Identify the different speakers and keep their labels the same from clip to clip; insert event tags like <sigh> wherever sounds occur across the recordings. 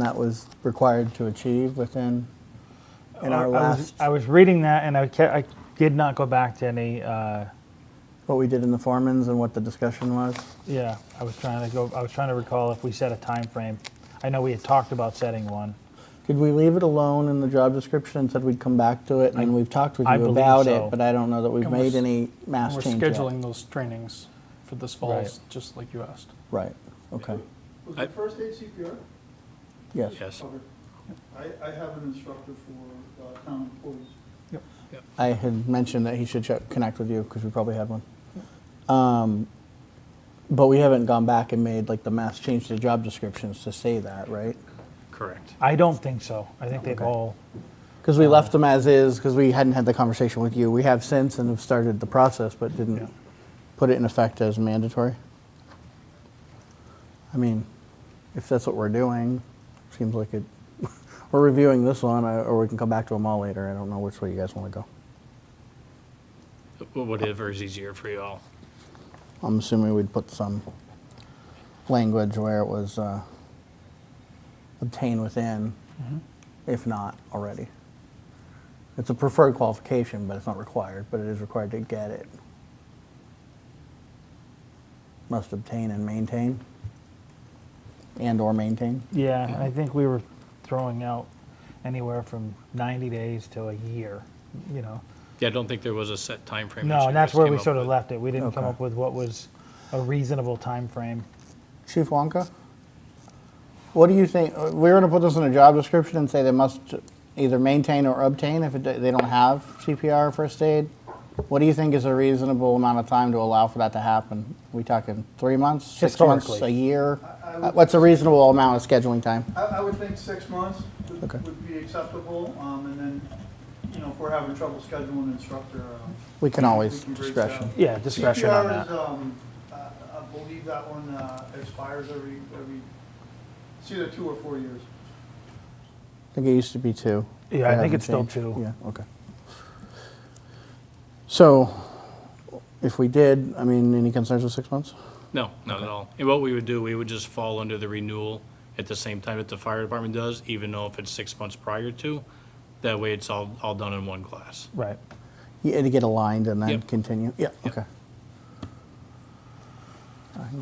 Speaker 1: that was required to achieve within, in
Speaker 2: Oh, Uh, I
Speaker 1: our
Speaker 2: was,
Speaker 1: last,
Speaker 2: I was reading that and I, ca- I did not go back to any, uh,
Speaker 1: what we did in the foremans and what the discussion was?
Speaker 2: yeah, I was trying to go, I was trying to recall if we set a time frame. I know we had talked about setting one.
Speaker 1: Did we leave it alone in the job description and said we'd come back to it? And we've talked with
Speaker 2: I
Speaker 1: you
Speaker 2: believe
Speaker 1: about
Speaker 2: so.
Speaker 1: it, but I don't know that we've
Speaker 3: And we're
Speaker 1: made
Speaker 3: s-
Speaker 1: any mass
Speaker 3: We're
Speaker 1: change yet.
Speaker 3: scheduling those trainings for this fall,
Speaker 2: Right.
Speaker 3: just like you asked.
Speaker 1: Right, okay,
Speaker 4: Was
Speaker 5: I-
Speaker 4: it first aid CPR?
Speaker 1: yes.
Speaker 5: Yes.
Speaker 4: Okay. I, I have an instructor for uh, town employees.
Speaker 1: I had mentioned that he should check, connect with you because we probably had one. Um, But we haven't gone back and made like the mass change to job descriptions to say that, right?
Speaker 5: Correct.
Speaker 2: I don't think so. I think they've
Speaker 1: Okay.
Speaker 2: all,
Speaker 1: Because we left them as is, because we hadn't had the conversation with you. We have since and have started the process, but
Speaker 2: Yeah.
Speaker 1: didn't put it in effect as mandatory. I mean, if that's what we're doing, seems like it, <laughs> we're reviewing this one, I- or we can come back to them all later. I don't know which way you guys want to go.
Speaker 5: Whatever is easier for you all.
Speaker 1: I'm assuming we'd put some language where it was uh, obtained within, if not already. It's a preferred qualification, but it's not required, but it is required to get it. Must obtain and maintain, and/or maintain.
Speaker 2: yeah, I think we were throwing out anywhere from 90 days to a year, you know?
Speaker 5: Yeah, I don't think there was a set time frame.
Speaker 2: No, and that's where we sort of left it. We didn't come
Speaker 1: Okay.
Speaker 2: up with what was a reasonable time frame.
Speaker 1: Chief Wonka? What do you think, uh, we're going to put this in a job description and say they must either maintain or obtain if it- they don't have CPR or first aid? What do you think is a reasonable amount of time to allow for that to happen? We talking three months, six months, a
Speaker 2: Historically.
Speaker 1: year?
Speaker 4: I- I
Speaker 1: Uh,
Speaker 4: would-
Speaker 1: What's a reasonable amount of scheduling time?
Speaker 4: I, I would think six months would-
Speaker 1: Okay.
Speaker 4: would be acceptable, um, and then, you know, if we're having trouble scheduling an instructor, um,
Speaker 1: We can always
Speaker 4: We can break
Speaker 1: discretion.
Speaker 4: down.
Speaker 2: Yeah, discretion on
Speaker 4: CPR is,
Speaker 2: that.
Speaker 4: um, I I believe that one uh, expires every, every, it's either two or four years.
Speaker 1: I think it used to be two.
Speaker 2: Yeah, I
Speaker 1: It
Speaker 2: think
Speaker 1: hasn't
Speaker 2: it's still
Speaker 1: changed.
Speaker 2: two.
Speaker 1: Yeah, okay. So if we did, I mean, any concerns with six months?
Speaker 5: No, not at all. And what we would do, we would just fall under the renewal at the same time that the fire department does, even though if it's six months prior to. That way it's all, all done in one class.
Speaker 2: Right.
Speaker 1: Yeah, to get aligned and then
Speaker 5: Yep.
Speaker 1: continue? Yeah, okay.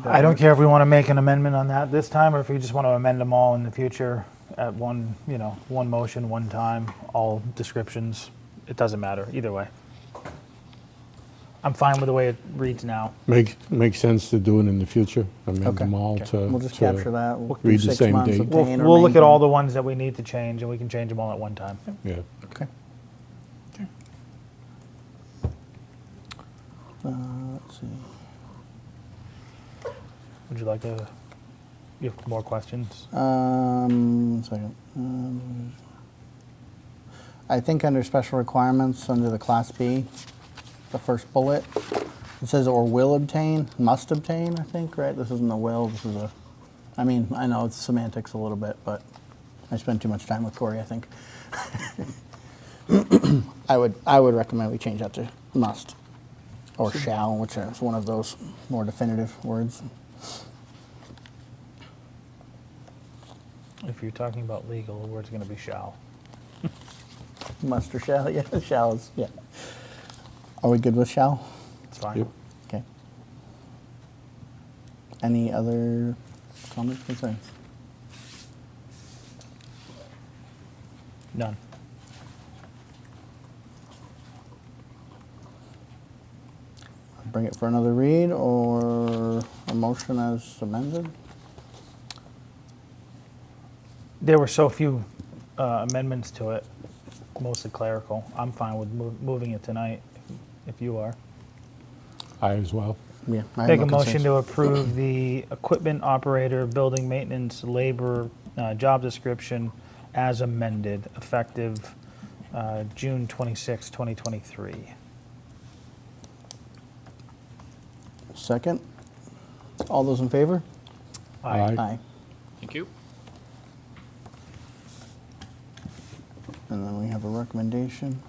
Speaker 2: I don't care if we want to make an amendment on that this time, or if we just want to amend them all in the future at one, you know, one motion, one time, all descriptions. It doesn't matter, either way. I'm fine with the way it reads now.
Speaker 6: Make, makes sense to do it in the future, amend
Speaker 1: Okay.
Speaker 6: them all
Speaker 1: Okay.
Speaker 6: to.
Speaker 1: We'll just
Speaker 6: to-
Speaker 1: capture that. We'll do
Speaker 6: read the
Speaker 1: six
Speaker 6: same
Speaker 1: months,
Speaker 6: date.
Speaker 2: We'll,
Speaker 1: obtain or
Speaker 2: we'll look at all
Speaker 1: maintain.
Speaker 2: the ones that we need to change, and we can change them all at one time.
Speaker 6: Yeah,
Speaker 1: Okay. Uh, let's see.
Speaker 2: Would you like to, you have more questions?
Speaker 1: Um, one second. Um, I think under special requirements, under the Class B, the first bullet, it says or will obtain, must obtain, I think, right? This isn't a will, this is a, I mean, I know it's semantics a little bit, but I spent too much time with Corey, I think. <coughs> I would, I would recommend we change that to must or shall, which is one of those more definitive words.
Speaker 2: If you're talking about legal, the word's going to be shall.
Speaker 1: Must or shall? <laughs> Yeah, shall is, yeah. Are we good with shall?
Speaker 2: It's fine.
Speaker 6: Yep.
Speaker 1: Okay. Any other comments, concerns?
Speaker 2: None.
Speaker 1: Bring it for another read or a motion as amended?
Speaker 2: There were so few uh, amendments to it, mostly clerical. I'm fine with mo- moving it tonight, if you are.
Speaker 6: I as well.
Speaker 1: Yeah. I have
Speaker 2: Make
Speaker 1: no
Speaker 2: a motion
Speaker 1: concerns.
Speaker 2: to approve the equipment operator, building maintenance, labor, uh, job description as amended, effective uh, June 26, 2023.
Speaker 1: Second. All those in favor?
Speaker 6: Aye.
Speaker 5: Thank you.
Speaker 1: And then we have a recommendation.